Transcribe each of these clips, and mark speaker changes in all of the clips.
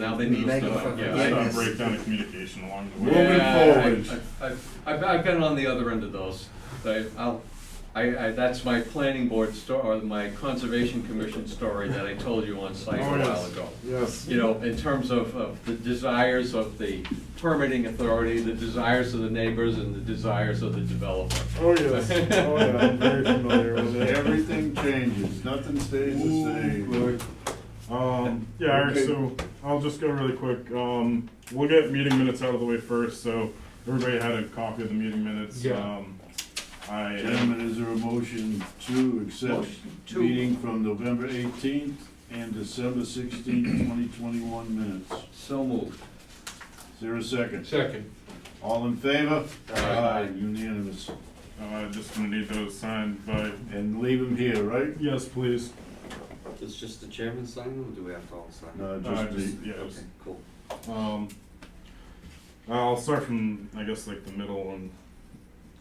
Speaker 1: Now they
Speaker 2: Begging
Speaker 1: need
Speaker 2: for
Speaker 1: stuff,
Speaker 3: Just
Speaker 1: yeah.
Speaker 2: forgiveness.
Speaker 3: not break down the communication along the
Speaker 1: I-
Speaker 3: way.
Speaker 4: Moving
Speaker 1: yeah, I-
Speaker 4: forward.
Speaker 1: I- I've, I've, I've been on the other end of those. I, I'll, I, I, that's my planning board story, or my conservation commission story that I told you on site a
Speaker 4: Oh, yes.
Speaker 1: while ago.
Speaker 4: Yes.
Speaker 1: You know, in terms of, of the desires of the permitting authority, the desires of the neighbors, and the desires of the developer.
Speaker 4: Oh, yes. Oh, yeah. I'm very familiar with it.
Speaker 5: Everything changes, nothing stays the same.
Speaker 3: Um, yeah, all right,
Speaker 5: Okay.
Speaker 3: so I'll just go really quick. Um, we'll get meeting minutes out of the way first, so everybody had a copy of the meeting minutes.
Speaker 4: Yeah.
Speaker 3: Um, I.
Speaker 5: Gentlemen, is there a motion to accept
Speaker 1: Motion to-
Speaker 5: meeting from November eighteenth and December sixteenth, twenty twenty-one minutes?
Speaker 1: So moved.
Speaker 5: Is there a second?
Speaker 4: Second.
Speaker 5: All in favor?
Speaker 1: Aye.
Speaker 5: Unanimous.
Speaker 3: Uh, just gonna need those signed by,
Speaker 5: And leave them here, right?
Speaker 3: yes, please.
Speaker 6: Does just the chairman sign them, or do we have to all sign them?
Speaker 5: No,
Speaker 3: Uh,
Speaker 5: just
Speaker 3: just,
Speaker 5: the,
Speaker 3: yeah,
Speaker 6: Okay,
Speaker 3: just,
Speaker 6: cool.
Speaker 3: um, I'll start from, I guess, like the middle and,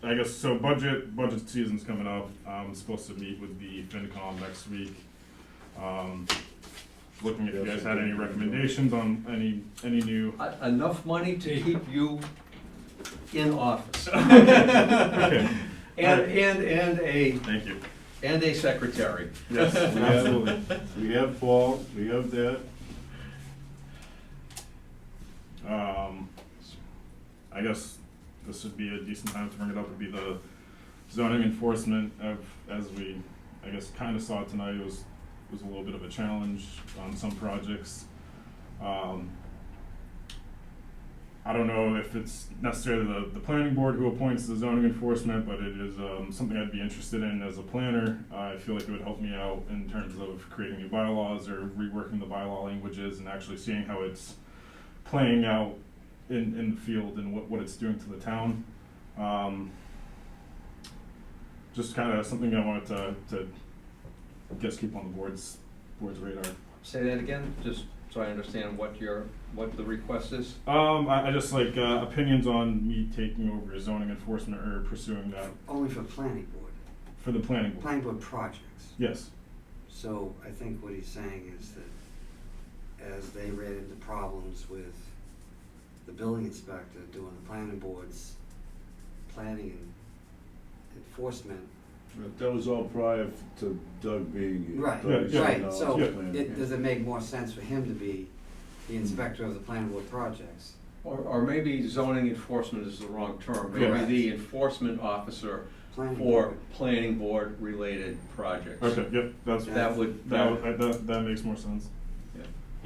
Speaker 3: I guess, so budget, budget season's coming up. I'm supposed to meet with the FinCom next week. Um, looking if you guys had any recommendations on any, any new
Speaker 1: E- Enough money to keep you in office.
Speaker 3: Okay,
Speaker 1: And, and, and a,
Speaker 3: thank you.
Speaker 1: and a secretary.
Speaker 3: Yes, absolutely.
Speaker 5: we have Paul, we have that.
Speaker 3: Um, I guess this would be a decent time to bring it up, would be the zoning enforcement of, as we, I guess, kinda saw tonight, it was, was a little bit of a challenge on some projects. Um, I don't know if it's necessarily the, the planning board who appoints the zoning enforcement, but it is, um, something I'd be interested in as a planner. I feel like it would help me out in terms of creating new bylaws or reworking the bylaw languages and actually seeing how it's playing out in, in the field and what, what it's doing to the town. Um, just kinda something I wanted to, to guess keep on the board's, board's radar.
Speaker 1: Say that again, just so I understand what your, what the request is.
Speaker 3: Um, I, I just like uh, opinions on me taking over zoning enforcement or pursuing that
Speaker 6: Only for planning board,
Speaker 3: for the planning board.
Speaker 6: planning board projects.
Speaker 3: Yes.
Speaker 6: So I think what he's saying is that as they ran into problems with the building inspector doing the planning board's planning and enforcement,
Speaker 5: But That was all prior to Doug being here.
Speaker 6: Right,
Speaker 5: Doug is
Speaker 3: Yeah,
Speaker 6: right,
Speaker 5: now
Speaker 6: so
Speaker 5: planning.
Speaker 6: it, does it make more sense for him to be the inspector of the planning board projects?
Speaker 1: Or, or maybe zoning enforcement is the wrong term, maybe
Speaker 6: Correct.
Speaker 1: the enforcement officer
Speaker 6: Planning
Speaker 1: for
Speaker 6: board.
Speaker 1: planning board related projects.
Speaker 3: Okay. Yep. That's that.
Speaker 1: That would,
Speaker 3: That,
Speaker 1: that,
Speaker 3: that, that, that makes more sense.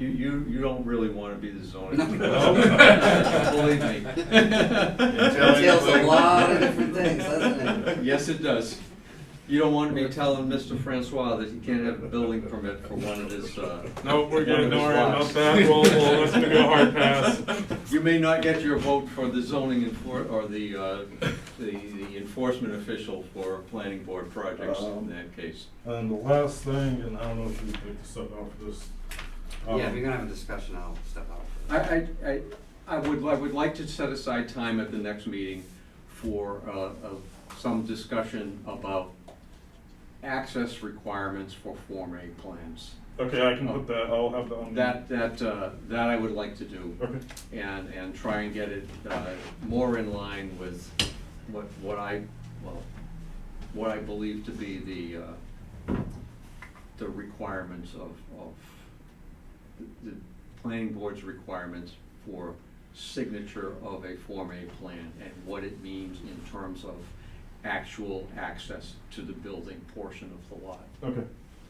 Speaker 1: you, you, you don't really wanna be the zoning.
Speaker 6: No.
Speaker 1: Believe me.
Speaker 6: Entails a lot of different things, doesn't it?
Speaker 1: Yes, it does. You don't wanna be telling Mr. Francois that he can't have a building permit for one of his, uh.
Speaker 3: No, we're
Speaker 1: one
Speaker 3: good.
Speaker 1: of
Speaker 3: Don't
Speaker 1: his
Speaker 3: worry about
Speaker 1: lots.
Speaker 3: that. We'll, we'll listen to go hard pass.
Speaker 1: You may not get your vote for the zoning enfor, or the, uh, the the enforcement official for planning board projects in
Speaker 3: Um,
Speaker 1: that case.
Speaker 3: And the last thing, and I don't know if you would like to sub out for this. Um,
Speaker 6: Yeah, if you're gonna have a discussion, I'll step out for that.
Speaker 1: I, I, I, I would, I would like to set aside time at the next meeting for, uh, of some discussion about access requirements for Form A plans.
Speaker 3: Okay, I can put that. I'll have that on.
Speaker 1: That, that, uh, that I would like to do.
Speaker 3: Okay.
Speaker 1: and, and try and get it uh, more in line with what, what I, well, what I believe to be the, uh, the requirements of, of, the the planning board's requirements for signature of a Form A plan and what it means in terms of actual access to the building portion of the lot.
Speaker 3: Okay.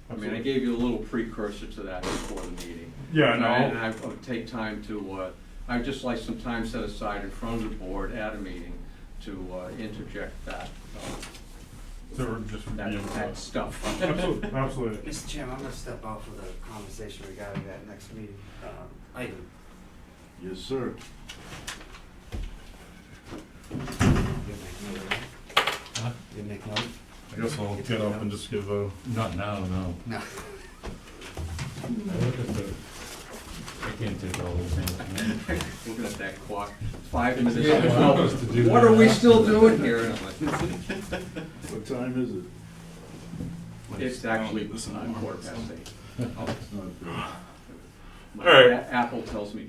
Speaker 1: I mean, I
Speaker 3: Absolutely.
Speaker 1: gave you a little precursor to that before the meeting.
Speaker 3: Yeah,
Speaker 1: And
Speaker 3: no.
Speaker 1: I- And I would take time to, uh, I'd just like some time set aside in front of the board at a meeting to uh, interject that, uh,
Speaker 3: So we're just
Speaker 1: that,
Speaker 3: reviewing
Speaker 1: that
Speaker 3: that.
Speaker 1: stuff.
Speaker 3: Absolutely. Absolutely.
Speaker 6: Mr. Chairman, I'm gonna step out for the conversation regarding that next meeting, um, item.
Speaker 5: Yes, sir.
Speaker 6: You make note, right? You make note?
Speaker 3: Uh-huh. I guess I'll get up and just give a.
Speaker 4: Not now, no.
Speaker 6: No.
Speaker 4: I look at the, I can't take all those things.
Speaker 1: Looking at that clock, five minutes.
Speaker 4: Yeah,
Speaker 1: to
Speaker 4: we're
Speaker 1: twelve.
Speaker 4: supposed to do
Speaker 1: What are we
Speaker 4: that.
Speaker 1: still doing here? And I'm like,
Speaker 5: What time is it?
Speaker 1: It's actually
Speaker 3: Listen,
Speaker 1: uh, quarter past eight.
Speaker 5: It's not good.
Speaker 1: My
Speaker 3: All right.
Speaker 1: a- Apple tells me